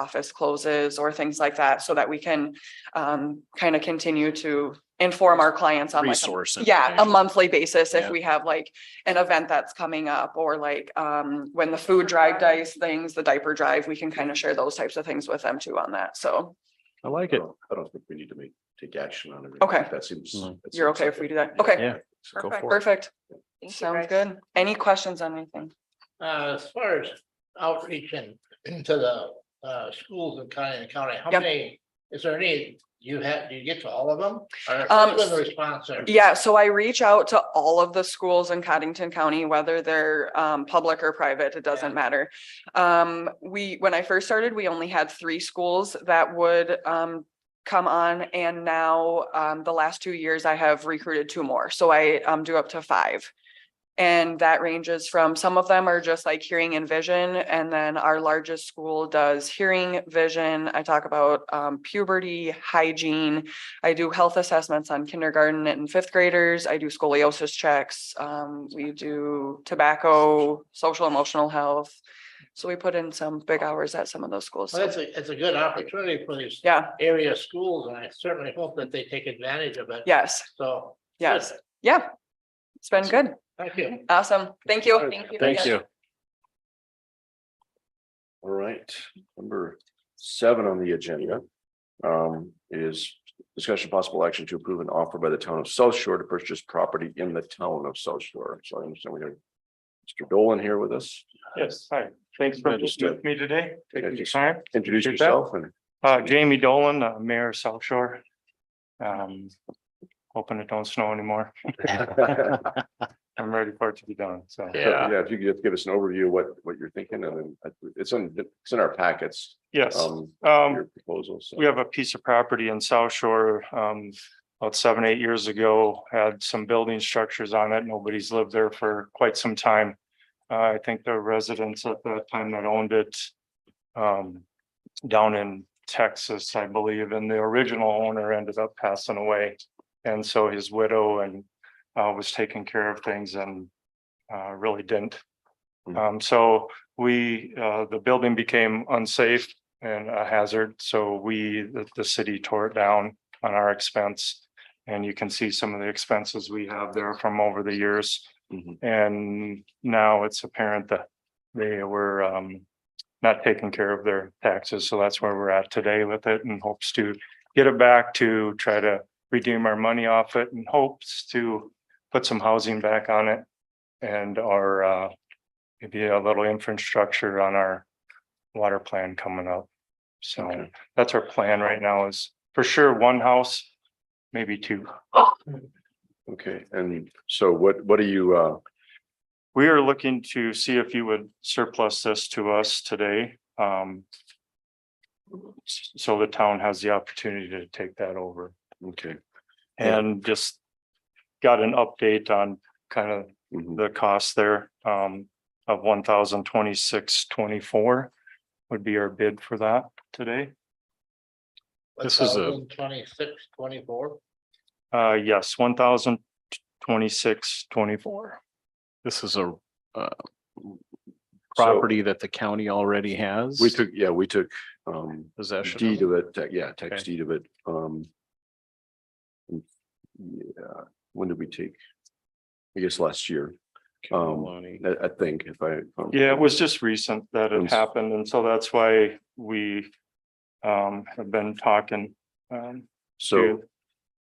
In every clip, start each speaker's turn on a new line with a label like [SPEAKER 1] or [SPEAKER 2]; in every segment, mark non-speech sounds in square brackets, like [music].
[SPEAKER 1] office closes or things like that, so that we can um kind of continue to inform our clients on like. a-
[SPEAKER 2] resource.
[SPEAKER 1] Yeah, a
[SPEAKER 2] information.
[SPEAKER 1] monthly basis if
[SPEAKER 2] Yeah.
[SPEAKER 1] we have like an event that's coming up or like um when the food drive dice things, the diaper drive, we can kind of share those types of things with them too on that. So
[SPEAKER 2] I like
[SPEAKER 3] I
[SPEAKER 2] it.
[SPEAKER 3] don't, I don't think we need to make, take action on it.
[SPEAKER 1] Okay.
[SPEAKER 3] That seems.
[SPEAKER 2] Mm.
[SPEAKER 3] that
[SPEAKER 1] you're
[SPEAKER 3] seems
[SPEAKER 1] okay
[SPEAKER 3] like
[SPEAKER 1] if we
[SPEAKER 3] it.
[SPEAKER 1] do that?
[SPEAKER 3] Yeah.
[SPEAKER 1] Okay,
[SPEAKER 2] Yeah. so go
[SPEAKER 4] Perfect.
[SPEAKER 2] for it.
[SPEAKER 1] perfect.
[SPEAKER 4] Thank you,
[SPEAKER 1] Sounds
[SPEAKER 4] guys.
[SPEAKER 1] good. Any questions on anything?
[SPEAKER 5] Uh, as far as outreach and to the uh schools in county and county, how
[SPEAKER 1] Yep.
[SPEAKER 5] many? Is there any, you have, do you get to all of them? Or
[SPEAKER 1] Um,
[SPEAKER 5] what's the response there?
[SPEAKER 1] Yeah, so I reach out to all of the schools in Cottington County, whether they're um public or private, it doesn't
[SPEAKER 5] Yeah.
[SPEAKER 1] matter. Um, we, when I first started, we only had three schools that would um come on and now um the last two years I have recruited two more, so I um do up to five. And that ranges from, some of them are just like hearing and vision, and then our largest school does hearing, vision. I talk about um puberty, hygiene, I do health assessments on kindergarten and fifth graders. I do scoliosis checks. Um, we do tobacco, social emotional health. So we put in some big hours at some of those schools.
[SPEAKER 5] Well, that's a, it's a good opportunity for these
[SPEAKER 1] Yeah,
[SPEAKER 5] area schools and I certainly hope that they take advantage of it.
[SPEAKER 1] yes,
[SPEAKER 5] So.
[SPEAKER 1] yes,
[SPEAKER 5] good.
[SPEAKER 1] yeah. It's been good.
[SPEAKER 5] Thank you.
[SPEAKER 1] Awesome. Thank you.
[SPEAKER 4] Thank you.
[SPEAKER 2] Thank you.
[SPEAKER 3] All right, number seven on the agenda. Um, is discussion possible action to approve an offer by the town of South Shore to purchase property in the town of South Shore. So I understand we have. Mr. Dolan here with us.
[SPEAKER 6] Yes, hi. Thanks for
[SPEAKER 3] Understood.
[SPEAKER 6] meeting with me today, taking your
[SPEAKER 3] Yes.
[SPEAKER 6] time.
[SPEAKER 3] Introduce
[SPEAKER 6] Appreciate that.
[SPEAKER 2] [laughs]
[SPEAKER 3] yourself and
[SPEAKER 6] Uh, Jamie Dolan, uh, Mayor of South Shore. Um, hoping it don't snow anymore. I'm ready for it to be done, so.
[SPEAKER 2] Yeah,
[SPEAKER 3] yeah, if you could just give us an overview of what what you're thinking and then uh, it's in, it's in our packets.
[SPEAKER 6] Yes,
[SPEAKER 3] Um,
[SPEAKER 6] um,
[SPEAKER 3] your proposals. so.
[SPEAKER 6] we have a piece of property in South Shore, um, about seven, eight years ago, had some building structures on it. Nobody's lived there for quite some time. Uh, I think the residents at that time that owned it, um, down in Texas, I believe, and the original owner ended up passing away. And so his widow and, uh, was taking care of things and, uh, really didn't.
[SPEAKER 3] Hmm.
[SPEAKER 6] Um, so we, uh, the building became unsafe and a hazard, so we, the, the city tore it down on our expense. And you can see some of the expenses we have there from over the years.
[SPEAKER 3] Mhm.
[SPEAKER 6] And now it's apparent that they were, um, not taking care of their taxes, so that's where we're at today with it and hopes to get it back to try to redeem our money off it and hopes to put some housing back on it. And our, uh, maybe a little infrastructure on our water plan coming up. So
[SPEAKER 3] Okay.
[SPEAKER 6] that's our plan right now is for sure one house, maybe two.
[SPEAKER 3] Okay, and so what what are you uh?
[SPEAKER 6] We are looking to see if you would surplus this to us today. Um. s- So the town has the opportunity to take that over
[SPEAKER 3] Okay. Yeah.
[SPEAKER 6] and just got an update on kind of
[SPEAKER 3] mhm.
[SPEAKER 6] the cost there um of one thousand twenty-six twenty-four would be our bid for that today.
[SPEAKER 2] This is a-
[SPEAKER 5] Twenty-six, twenty-four.
[SPEAKER 6] Uh, yes, one thousand twenty-six twenty-four.
[SPEAKER 2] This is a uh,
[SPEAKER 3] So
[SPEAKER 2] property that the county already has.
[SPEAKER 3] We took, yeah, we took um
[SPEAKER 2] Possession.
[SPEAKER 3] deed
[SPEAKER 2] of.
[SPEAKER 3] of it, te- yeah,
[SPEAKER 2] Okay.
[SPEAKER 3] text deed of it, um. Yeah, when did we take? I guess last year, um,
[SPEAKER 2] Colony.
[SPEAKER 3] I I think if I. if I'm-
[SPEAKER 6] Yeah, it was just recent that it
[SPEAKER 3] Yes.
[SPEAKER 6] happened, and so that's why we um have been talking. Um,
[SPEAKER 3] So,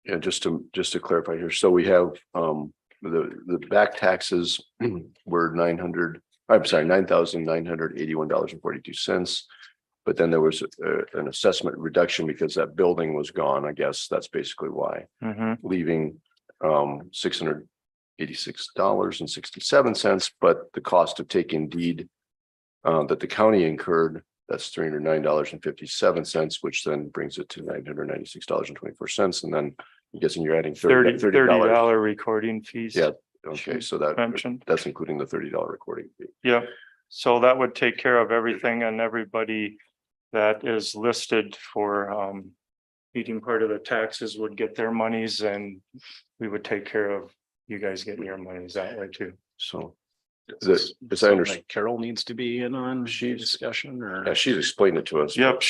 [SPEAKER 3] yeah, just to, just to clarify here, so we have um the the back taxes [clears throat] were nine hundred, I'm sorry, nine thousand nine hundred eighty-one dollars and forty-two cents. But then there was uh, an assessment reduction because that building was gone, I guess, that's basically why.
[SPEAKER 6] mhm,
[SPEAKER 3] leaving um six hundred eighty-six dollars and sixty-seven cents, but the cost of taking deed uh, that the county incurred, that's three hundred nine dollars and fifty-seven cents, which then brings it to nine hundred ninety-six dollars and twenty-four cents, and then I'm guessing you're adding thirty,
[SPEAKER 6] thirty, thirty
[SPEAKER 3] dollars.
[SPEAKER 6] dollar recording fees.
[SPEAKER 3] Yeah, Okay, so that,
[SPEAKER 6] Mentioned.
[SPEAKER 3] that's including the thirty dollar recording fee.
[SPEAKER 6] Yeah, so that would take care of everything and everybody that is listed for um. Eating part of the taxes would get their monies and we would take care of you guys getting your monies that way too.
[SPEAKER 3] So The- as I
[SPEAKER 6] Something
[SPEAKER 3] underst-
[SPEAKER 6] that Carol needs to be in on the
[SPEAKER 3] She's-
[SPEAKER 6] discussion or?
[SPEAKER 3] Yeah, she's explained it to us.
[SPEAKER 7] Yep,